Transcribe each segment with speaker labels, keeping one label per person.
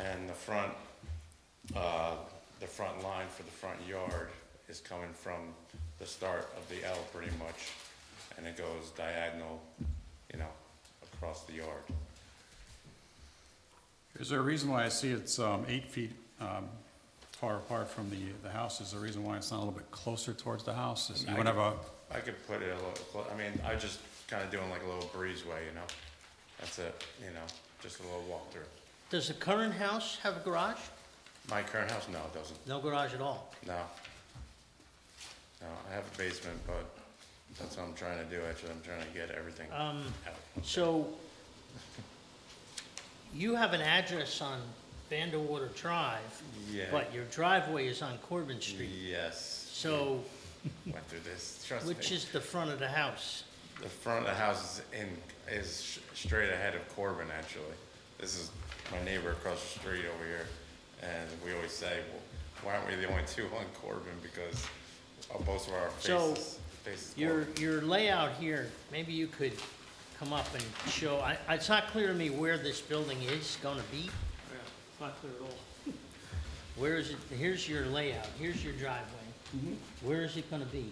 Speaker 1: And the front, uh, the front line for the front yard is coming from the start of the L pretty much, and it goes diagonal, you know, across the yard.
Speaker 2: Is there a reason why I see it's um, eight feet um, far apart from the, the house? Is there a reason why it's not a little bit closer towards the house? Is- You would have a,
Speaker 1: I could put it a little, clo- I mean, I just kinda doing like a little breezeway, you know? That's it, you know, just a little walkthrough.
Speaker 3: Does the current house have a garage?
Speaker 1: My current house, no, it doesn't,
Speaker 3: No garage at all.
Speaker 1: no. No, I have a basement, but that's what I'm trying to do, actually, I'm trying to get everything out.
Speaker 3: Um, so you have an address on Vanderwater Drive,
Speaker 1: Yeah.
Speaker 3: but your driveway is on Corbin Street.
Speaker 1: Yes,
Speaker 3: So
Speaker 1: went through this, trust me.
Speaker 3: which is the front of the house?
Speaker 1: The front of the house is in, is sh- straight ahead of Corbin, actually. This is my neighbor across the street over here, and we always say, well, why aren't we the only two on Corbin, because of both of our
Speaker 3: So,
Speaker 1: faces, faces
Speaker 3: Your,
Speaker 1: Corbin.
Speaker 3: your layout here, maybe you could come up and show, I, it's not clear to me where this building is gonna be.
Speaker 4: Yeah, it's not clear at all.
Speaker 3: Where is it, here's your layout, here's your driveway. Where is it gonna be?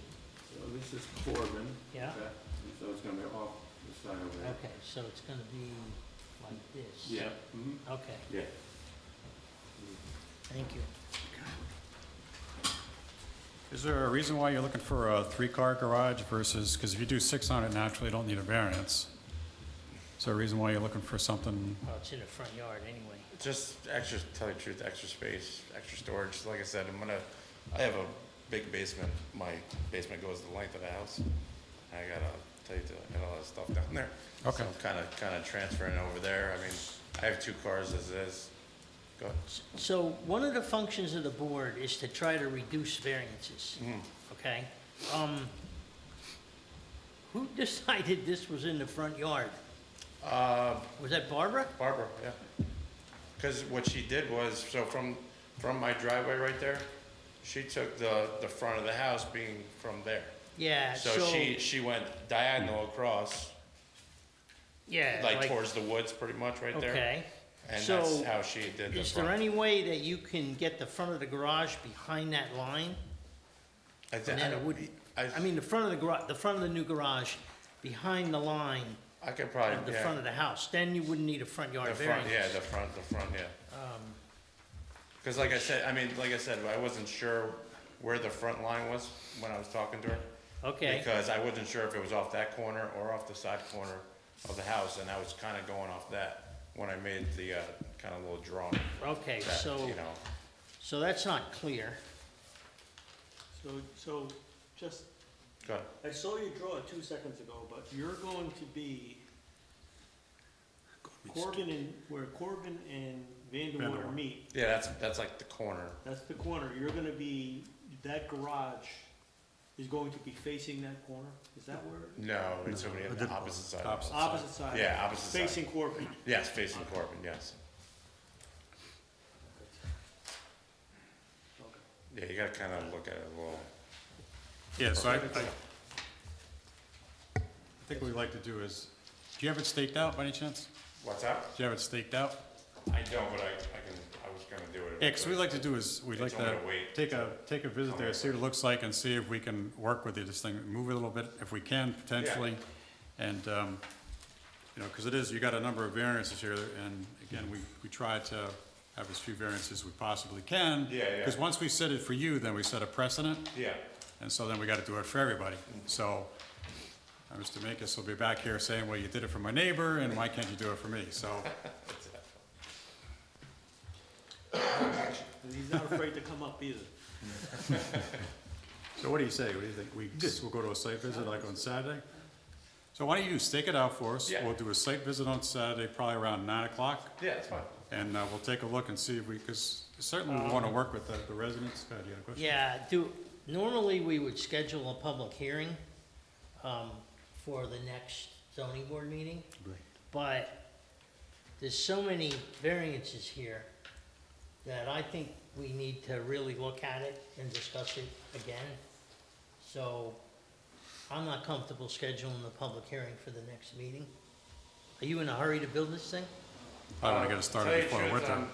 Speaker 5: So this is Corbin.
Speaker 3: Yeah.
Speaker 5: okay? And So it's gonna be off the side over there.
Speaker 3: Okay, so it's gonna be like this?
Speaker 5: Yeah. mhm,
Speaker 3: Okay,
Speaker 5: Yeah.
Speaker 3: thank you.
Speaker 2: is there a reason why you're looking for a three-car garage versus, because if you do six on it naturally, you don't need a variance. Is there a reason why you're looking for something,
Speaker 3: Well, it's in the front yard anyway.
Speaker 1: Just extra, tell you the truth, extra space, extra storage. Like I said, I'm gonna, I have a big basement. My basement goes the length of the house. I gotta tell you, I got all that stuff down there.
Speaker 2: Okay.
Speaker 1: So I'm kinda, kinda transferring over there. I mean, I have two cars as is. Go ahead.
Speaker 3: S- So one of the functions of the board is to try to reduce variances,
Speaker 1: Mm.
Speaker 3: okay? Um, who decided this was in the front yard?
Speaker 1: Uh,
Speaker 3: Was that Barbara?
Speaker 1: Barbara, yeah. Because what she did was, so from, from my driveway right there, she took the, the front of the house being from there.
Speaker 3: Yeah, so,
Speaker 1: So she, she went diagonal across,
Speaker 3: yeah,
Speaker 1: like towards the woods pretty much right there.
Speaker 3: Okay.
Speaker 1: And
Speaker 3: So,
Speaker 1: that's how she did the
Speaker 3: Is there
Speaker 1: front.
Speaker 3: any way that you can get the front of the garage behind that line?
Speaker 1: I thi-
Speaker 3: And
Speaker 1: I
Speaker 3: then it
Speaker 1: don't-
Speaker 3: would,
Speaker 1: I,
Speaker 3: I mean, the front of the garage, the front of the new garage, behind the line
Speaker 1: I could
Speaker 3: of
Speaker 1: probably,
Speaker 3: the
Speaker 1: yeah.
Speaker 3: front of the house, then you wouldn't need a front yard
Speaker 1: The front,
Speaker 3: variance.
Speaker 1: yeah, the front, the front, yeah.
Speaker 3: Um,
Speaker 1: Because like I said, I mean, like I said, I wasn't sure where the front line was when I was talking to her.
Speaker 3: Okay,
Speaker 1: Because I wasn't sure if it was off that corner or off the side corner of the house, and I was kind of going off that when I made the, uh, kind of little drawing.
Speaker 3: okay,
Speaker 1: that,
Speaker 3: so,
Speaker 1: You know,
Speaker 3: so that's not clear.
Speaker 4: So, so just,
Speaker 1: go ahead.
Speaker 4: I saw you draw it two seconds ago, but you're going to be Corbin and, where Corbin and Vanderwater
Speaker 2: Vanderwater.
Speaker 4: meet,
Speaker 1: Yeah, that's, that's like the corner.
Speaker 4: that's the corner, you're gonna be, that garage is going to be facing that corner, is that where? it is?
Speaker 1: No, it's over the opposite side. of the house.
Speaker 4: Opposite side.
Speaker 1: Yeah, opposite side.
Speaker 4: Facing Corbin.
Speaker 1: Yes, facing Corbin, yes.
Speaker 4: Okay.
Speaker 1: Yeah, you gotta kind of look at it a little.
Speaker 2: yeah, so I, I I think what we'd like to do is, do you have it staked out by any chance?
Speaker 1: What's that?
Speaker 2: Do you have it staked out?
Speaker 1: I don't, but I, I can, I was gonna do it. if I
Speaker 2: Yeah, 'cause
Speaker 1: could.
Speaker 2: we'd like to do is, we'd like
Speaker 1: It's only
Speaker 2: to
Speaker 1: a wait.
Speaker 2: take a, take a visit there, see what it looks like, and see if we can work with you, this thing, move it a little bit, if we can, potentially. And, um, you know, because it is, you got a number of variances here, and again, we, we try to have as few variances as we possibly can.
Speaker 1: Yeah, yeah.
Speaker 2: Because once we set it for you, then we set a precedent,
Speaker 1: Yeah,
Speaker 2: and so then we gotta do it for everybody.
Speaker 1: Mm-hmm.
Speaker 2: So, uh, Mr. Makis will be back here saying, well, you did it for my neighbor, and why can't you do it for me? So,
Speaker 4: And he's not afraid to come up either.
Speaker 2: So what do you say? What do you think? We just, we'll go to a site visit like on Saturday? So why don't you stake it out for us?
Speaker 1: Yeah.
Speaker 2: We'll do a site visit on Saturday, probably around nine o'clock,
Speaker 1: yeah, that's fine.
Speaker 2: and uh, we'll take a look and see if we, because certainly
Speaker 1: Um,
Speaker 2: we want to work with the the residents. God, you had a question?
Speaker 3: Yeah, do, normally we would schedule a public hearing, um, for the next zoning board meeting. But there's so many variances here that I think we need to really look at it and discuss it again. So I'm not comfortable scheduling the public hearing for the next meeting. Are you in a hurry to build this thing?
Speaker 2: I want to get
Speaker 1: Uh, tell
Speaker 2: it started
Speaker 1: uh, you
Speaker 2: before
Speaker 1: the
Speaker 2: winter.
Speaker 1: truth, I'm-